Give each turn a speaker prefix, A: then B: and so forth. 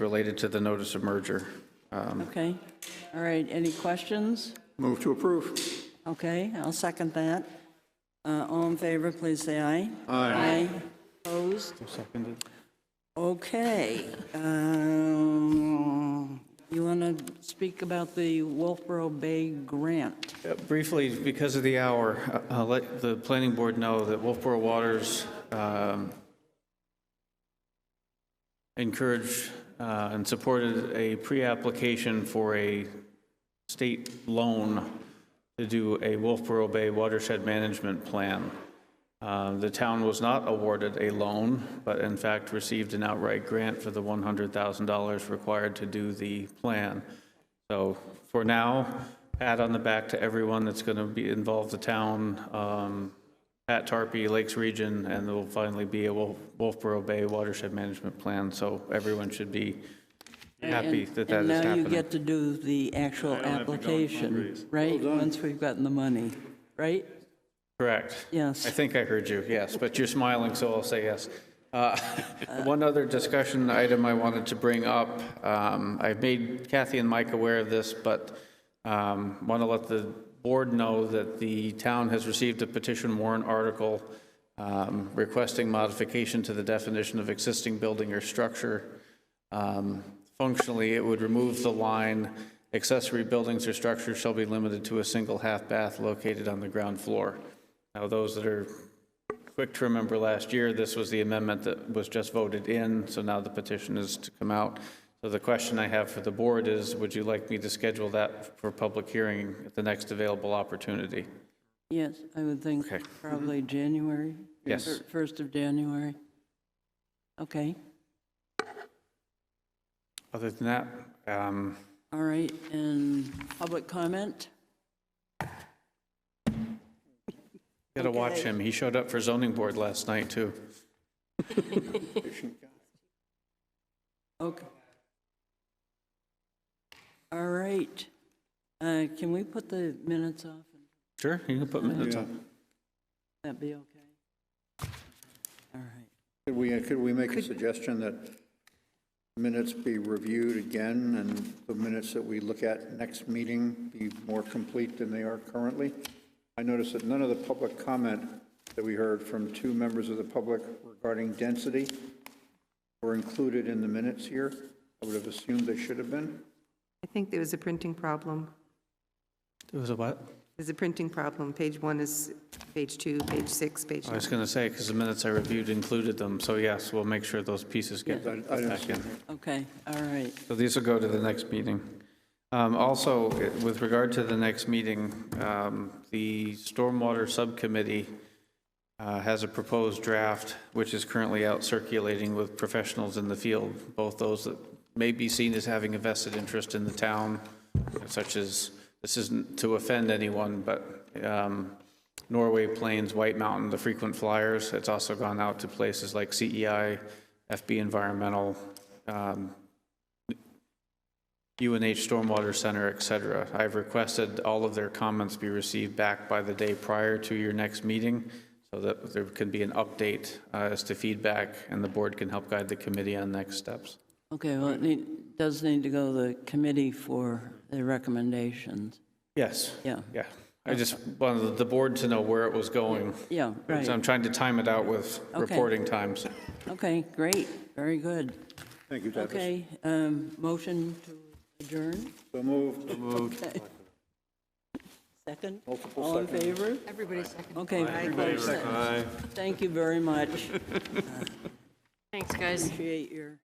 A: related to the notice of merger. Um,
B: Okay, all right, any questions?
C: Move to approve.
B: Okay, I'll second that. Uh, All in favor, please say aye. Aye. Opposed? Okay. um, You want to speak about the Wolfboro Bay grant?
A: Uh, Briefly, because of the hour, uh, I'll let the planning board know that Wolfboro Waters um, encouraged uh, and supported a pre-application for a state loan to do a Wolfboro Bay watershed management plan. Uh, The town was not awarded a loan, but in fact received an outright grant for the $100,000 required to do the plan. So for now, pat on the back to everyone that's going to be, involved. the town, um, Pat Tarpey, Lakes Region, and there will finally be a Wolf- Wolfboro Bay watershed management plan, so everyone should be happy that that is happening.
B: And now you get to do the actual application, right? Once we've gotten the money, right?
A: Correct.
B: Yes.
A: I think I heard you, yes, but you're smiling, so I'll say yes. Uh, One other discussion item I wanted to bring up, um, I've made Kathy and Mike aware of this, but want to let the board know that the town has received a petition warrant article um, requesting modification to the definition of existing building or structure. Um, Functionally, it would remove the line, accessory buildings or structures shall be limited to a single half-bath located on the ground floor. Now, those that are quick to remember last year, this was the amendment that was just voted in, so now the petition is to come out. So the question I have for the board is, would you like me to schedule that for public hearing at the next available opportunity?
B: Yes, I would think
A: Okay.
B: probably January.
A: Yes.
B: fir- First of January. Okay,
A: Other than that, um,
B: all right, and public comment?
A: you gotta watch him. He showed up for zoning board last night, too.
B: Okay. All right. Uh, Can we put the minutes off?
A: Sure, you can put minutes on.
B: That'd be okay? All right.
C: Could we, could we make a suggestion that minutes be reviewed again and the minutes that we look at next meeting be more complete than they are currently? I noticed that none of the public comment that we heard from two members of the public regarding density were included in the minutes here. I would have assumed they should have been.
D: I think there was a printing problem.
A: It was a what?
D: There's a printing problem. Page one is page two, page six, page
A: I was gonna say, because the minutes I reviewed included them, so yes, we'll make sure those pieces get
C: I I don't
A: back
C: see
A: in.
B: Okay, all right.
A: So these will go to the next meeting. Um, Also, with regard to the next meeting, um, the Stormwater Subcommittee uh, has a proposed draft, which is currently out circulating with professionals in the field, both those that may be seen as having a vested interest in the town, such as, this isn't to offend anyone, but um, Norway Plains, White Mountain, the frequent flyers. It's also gone out to places like E CEI, FB Environmental, um, UNH Stormwater Center, et cetera. I've requested all of their comments be received back by the day prior to your next meeting so that there can be an update uh, as to feedback and the board can help guide the committee on next steps.
B: Okay, well, it need- does need to go to the committee for the recommendations.
A: Yes.
B: Yeah,
A: Yeah. I just wanted the board to know where it was going.
B: yeah,
A: So I'm
B: right.
A: trying to time it out with
B: Okay.
A: reporting times.
B: Okay, great, very good.
C: Thank you, Tavis.
B: Okay, um, motion to adjourn?
C: So moved.
B: Okay. Second? All in favor?
D: Everybody second.
B: Okay. Thank you very much.
E: Thanks, guys.
B: Appreciate your.